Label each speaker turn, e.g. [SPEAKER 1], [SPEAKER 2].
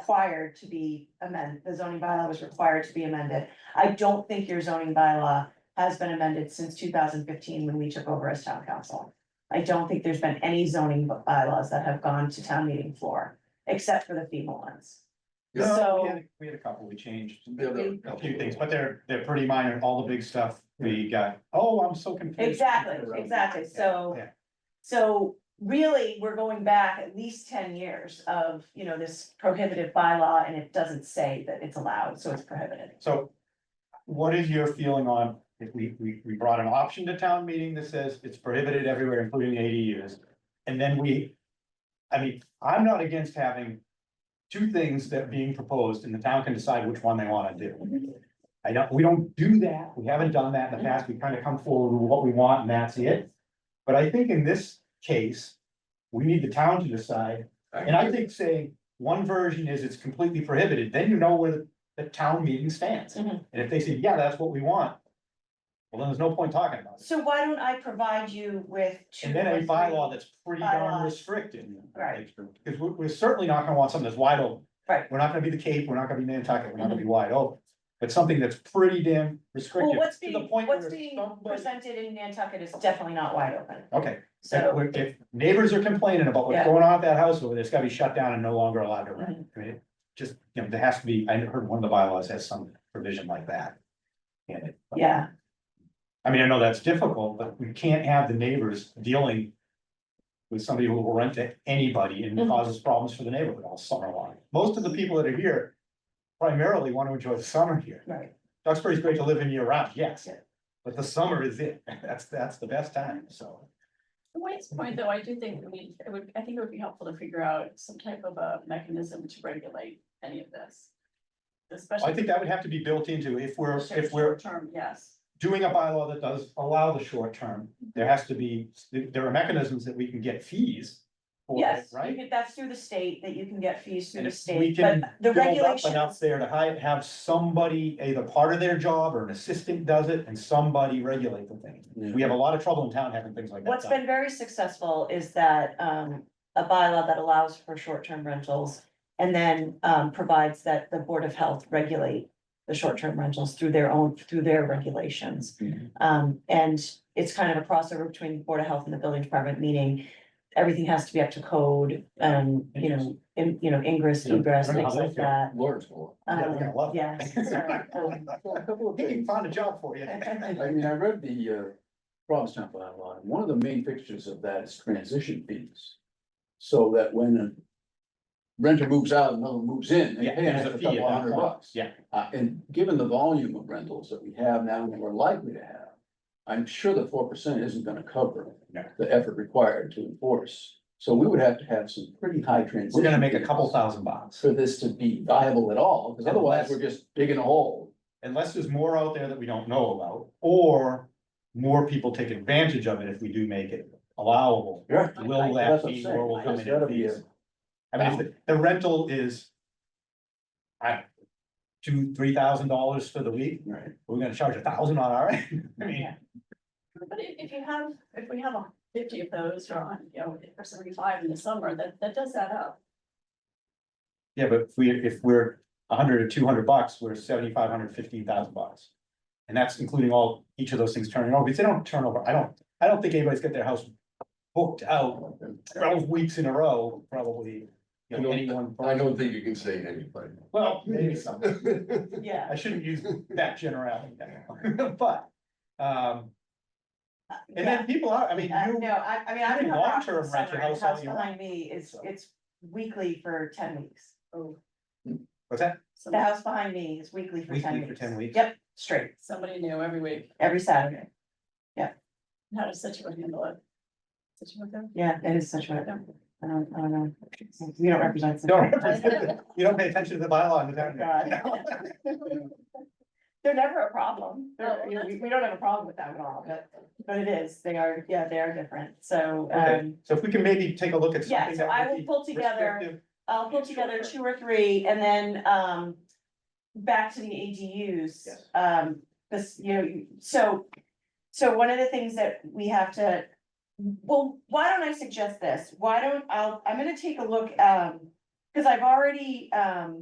[SPEAKER 1] required to be amended, the zoning bylaw was required to be amended. I don't think your zoning bylaw has been amended since two thousand fifteen when we took over as town council. I don't think there's been any zoning by- bylaws that have gone to town meeting floor, except for the FEMA ones.
[SPEAKER 2] Yeah.
[SPEAKER 1] So-
[SPEAKER 3] We had a- We had a couple, we changed
[SPEAKER 2] Yeah, there were
[SPEAKER 3] a few things, but they're, they're pretty minor, all the big stuff we got, oh, I'm so confused.
[SPEAKER 1] Exactly, exactly, so.
[SPEAKER 3] Yeah.
[SPEAKER 1] So really, we're going back at least ten years of, you know, this prohibitive bylaw and it doesn't say that it's allowed, so it's prohibited.
[SPEAKER 3] So what is your feeling on, if we, we, we brought an option to town meeting that says it's prohibited everywhere, including ADUs? And then we, I mean, I'm not against having two things that are being proposed and the town can decide which one they wanna do. I don't, we don't do that, we haven't done that in the past, we kind of come forward with what we want and that's it. But I think in this case, we need the town to decide and I think saying one version is it's completely prohibited, then you know where the- the town meeting stands.
[SPEAKER 1] Mhm.
[SPEAKER 3] And if they say, yeah, that's what we want. Well, then there's no point talking about it.
[SPEAKER 1] So why don't I provide you with two?
[SPEAKER 3] And then
[SPEAKER 1] or
[SPEAKER 3] a
[SPEAKER 1] three-
[SPEAKER 3] bylaw that's pretty
[SPEAKER 1] Bylaws.
[SPEAKER 3] darn restricted.
[SPEAKER 1] Right.
[SPEAKER 3] Because we're, we're certainly not gonna want something that's wide open.
[SPEAKER 1] Right. Mm-hmm.
[SPEAKER 3] We're not gonna be the Cape, we're not gonna be Nantucket, we're not gonna be wide open. But something that's pretty damn
[SPEAKER 1] Well,
[SPEAKER 3] restrictive.
[SPEAKER 1] what's
[SPEAKER 3] to the
[SPEAKER 1] being,
[SPEAKER 3] point
[SPEAKER 1] what's
[SPEAKER 3] where
[SPEAKER 1] being
[SPEAKER 3] somebody-
[SPEAKER 1] presented in Nantucket is definitely not wide open,
[SPEAKER 3] Okay, if,
[SPEAKER 1] so.
[SPEAKER 3] we're- if neighbors are complaining about
[SPEAKER 1] Yeah.
[SPEAKER 3] what's going on at that house over there, it's gotta be shut down and no longer allowed to rent.
[SPEAKER 1] Mhm.
[SPEAKER 3] I mean, it just, you know, there has to be, I heard one of the bylaws has some provision like that. in it.
[SPEAKER 1] Yeah,
[SPEAKER 3] I mean, I know that's difficult, but we can't have the neighbors dealing. With somebody who will rent to anybody and
[SPEAKER 1] Mhm.
[SPEAKER 3] causes problems for the neighborhood all summer long. Most of the people that are here. Primarily want to enjoy the summer here.
[SPEAKER 1] right,
[SPEAKER 3] Duxbury's great to live in year round, yes.
[SPEAKER 1] Yeah.
[SPEAKER 3] But the summer is it. That's, that's the best time, so.
[SPEAKER 4] To Wayne's point, though, I do think, we need. it would, I think it would be helpful to figure out some type of a mechanism to regulate any of this. Especially.
[SPEAKER 3] I think that would have to be built into if we're, if we're
[SPEAKER 4] Term, yes,
[SPEAKER 3] doing a bylaw that does allow the short term, there has to be, there are mechanisms that we can get fees. for it,
[SPEAKER 1] yes, you
[SPEAKER 3] Right?
[SPEAKER 1] could- that's through the state, that you can get fees through
[SPEAKER 3] And
[SPEAKER 1] the
[SPEAKER 3] if we
[SPEAKER 1] state,
[SPEAKER 3] can
[SPEAKER 1] but the
[SPEAKER 3] Build up
[SPEAKER 1] regulations.
[SPEAKER 3] Enough there to hi- have somebody, either part of their job or an assistant does it and somebody regulate the thing. We have a lot of trouble in town having things like that.
[SPEAKER 1] What's
[SPEAKER 3] done.
[SPEAKER 1] been very successful is that um a bylaw that allows for short-term rentals. And then um provides that the Board of Health regulate the short-term rentals through their own, through their regulations.
[SPEAKER 3] Mhm.
[SPEAKER 1] Um, and it's kind of a crossover between the Board of Health and the Building Department, meaning everything has to be up to code, um, you know, in, you know, ingress,
[SPEAKER 3] Yeah.
[SPEAKER 1] egress,
[SPEAKER 3] I don't know
[SPEAKER 1] things
[SPEAKER 3] how they
[SPEAKER 1] like
[SPEAKER 3] feel.
[SPEAKER 1] that.
[SPEAKER 2] Lawrence will.
[SPEAKER 3] Yeah, they're gonna
[SPEAKER 1] Um,
[SPEAKER 3] love it.
[SPEAKER 1] Yes, so, um,
[SPEAKER 2] Well, a couple of
[SPEAKER 3] Hey, we
[SPEAKER 2] things.
[SPEAKER 3] found a job for you.
[SPEAKER 1] Oh.
[SPEAKER 2] I mean, I read the uh Provincetown bylaw, and one of the main fixtures of that is transition fees. So that when a renter moves out, and another moves in, they
[SPEAKER 3] Yeah,
[SPEAKER 2] pay an
[SPEAKER 3] there's a
[SPEAKER 2] extra
[SPEAKER 3] fee
[SPEAKER 2] couple
[SPEAKER 3] at that
[SPEAKER 2] hundred
[SPEAKER 3] point.
[SPEAKER 2] bucks.
[SPEAKER 3] Yeah.
[SPEAKER 2] Uh, and given the volume of rentals that we have now and we're likely to have, I'm sure the four percent isn't gonna cover
[SPEAKER 3] No.
[SPEAKER 2] the effort required to enforce. So we would have to have some pretty high transition.
[SPEAKER 3] We're gonna make a
[SPEAKER 2] fees
[SPEAKER 3] couple thousand bucks.
[SPEAKER 2] For this to be viable at all, because otherwise we're just digging a hole.
[SPEAKER 3] unless there's more out there that we don't know about, or more people take advantage of it if we do make it allowable.
[SPEAKER 2] Yeah.
[SPEAKER 3] Will that
[SPEAKER 2] That's what I'm
[SPEAKER 3] be or will
[SPEAKER 2] saying.
[SPEAKER 3] come
[SPEAKER 2] There's gotta
[SPEAKER 3] in
[SPEAKER 2] be a-
[SPEAKER 3] fees? I mean, if the- the rental is. I, two, three thousand dollars for the week,
[SPEAKER 2] Right.
[SPEAKER 3] we're gonna charge a thousand on our end, I mean,
[SPEAKER 1] Yeah.
[SPEAKER 4] but if, if you have, if we have a fifty of those or on, you know, or seventy-five in the summer, that, that does add up.
[SPEAKER 3] yeah, but if we, if we're a hundred or two hundred bucks, we're seventy-five hundred, fifteen thousand bucks. And that's including all, each of those things turning over, because they don't turn over, I don't, I don't think anybody's got their house booked out twelve weeks in a row, probably. You know, any one
[SPEAKER 5] I
[SPEAKER 3] person.
[SPEAKER 5] don't think you can say anything.
[SPEAKER 3] Well, maybe some.
[SPEAKER 1] yeah.
[SPEAKER 3] I shouldn't use that generality, now. but, um, and then people are, I mean,
[SPEAKER 1] Uh,
[SPEAKER 3] you,
[SPEAKER 1] no, I, I mean, I'm
[SPEAKER 3] you
[SPEAKER 1] in
[SPEAKER 3] can
[SPEAKER 1] a house
[SPEAKER 3] long-term
[SPEAKER 1] this
[SPEAKER 3] rent
[SPEAKER 1] summer,
[SPEAKER 3] your
[SPEAKER 1] and
[SPEAKER 3] house
[SPEAKER 1] the
[SPEAKER 3] all
[SPEAKER 1] house
[SPEAKER 3] you want.
[SPEAKER 1] behind me is,
[SPEAKER 3] So-
[SPEAKER 1] it's weekly for ten weeks.
[SPEAKER 3] what's that?
[SPEAKER 1] The house behind me is weekly for ten
[SPEAKER 3] Weekly
[SPEAKER 1] weeks.
[SPEAKER 3] for 10 weeks.
[SPEAKER 1] Yep, straight,
[SPEAKER 4] Somebody new every week,
[SPEAKER 1] every Saturday.
[SPEAKER 4] how does Situate handle it? Situate them?
[SPEAKER 1] Yeah, that is such a, I don't, I don't know. We don't represent.
[SPEAKER 3] Don't,
[SPEAKER 1] Situate.
[SPEAKER 3] you don't pay attention to the bylaw in the town.
[SPEAKER 1] Oh God. They're never a problem. They're-
[SPEAKER 4] Oh,
[SPEAKER 1] you know,
[SPEAKER 4] that's
[SPEAKER 1] we, we don't have a problem with them at all, but, but it is, they are, yeah, they are different, so,
[SPEAKER 3] Okay,
[SPEAKER 1] um.
[SPEAKER 3] so if we can maybe take a look at
[SPEAKER 1] Yeah,
[SPEAKER 3] something
[SPEAKER 1] so
[SPEAKER 3] that
[SPEAKER 1] I
[SPEAKER 3] would
[SPEAKER 1] will
[SPEAKER 3] be
[SPEAKER 1] pull together.
[SPEAKER 3] restrictive.
[SPEAKER 1] I'll pull
[SPEAKER 3] Yeah,
[SPEAKER 1] together two
[SPEAKER 3] sure.
[SPEAKER 1] or three and then um back to the ADUs.
[SPEAKER 3] Yes.
[SPEAKER 1] Um, this, you know, you- so so one of the things that we have to, well, why don't I suggest this? Why don't I'll, I'm gonna take a look um Cause I've already, um,